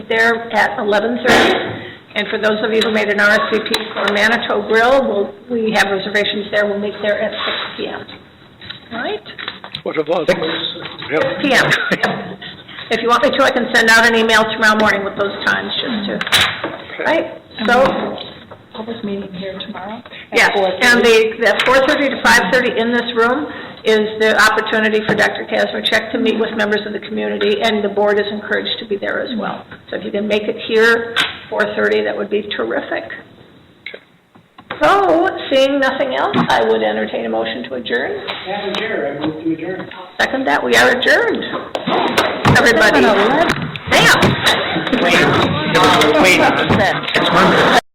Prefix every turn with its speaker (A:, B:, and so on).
A: there at 11:30. And for those of you who made an RSVP for Manitou Grill, we'll- we have reservations there, we'll meet there at 6 PM. All right?
B: What about? Yep.
A: 6 PM. If you want me to, I can send out an email tomorrow morning with those times, just to, right? So,
C: Public meeting here tomorrow?
A: Yes, and the, the 4:30 to 5:30 in this room is the opportunity for Dr. Kazmierczak to meet with members of the community, and the board is encouraged to be there as well. So if you can make it here, 4:30, that would be terrific. So, seeing nothing else, I would entertain a motion to adjourn.
D: Madam Chair, I move to adjourn.
A: Second that, we are adjourned. Everybody. Damn.
E: Wait, no, wait.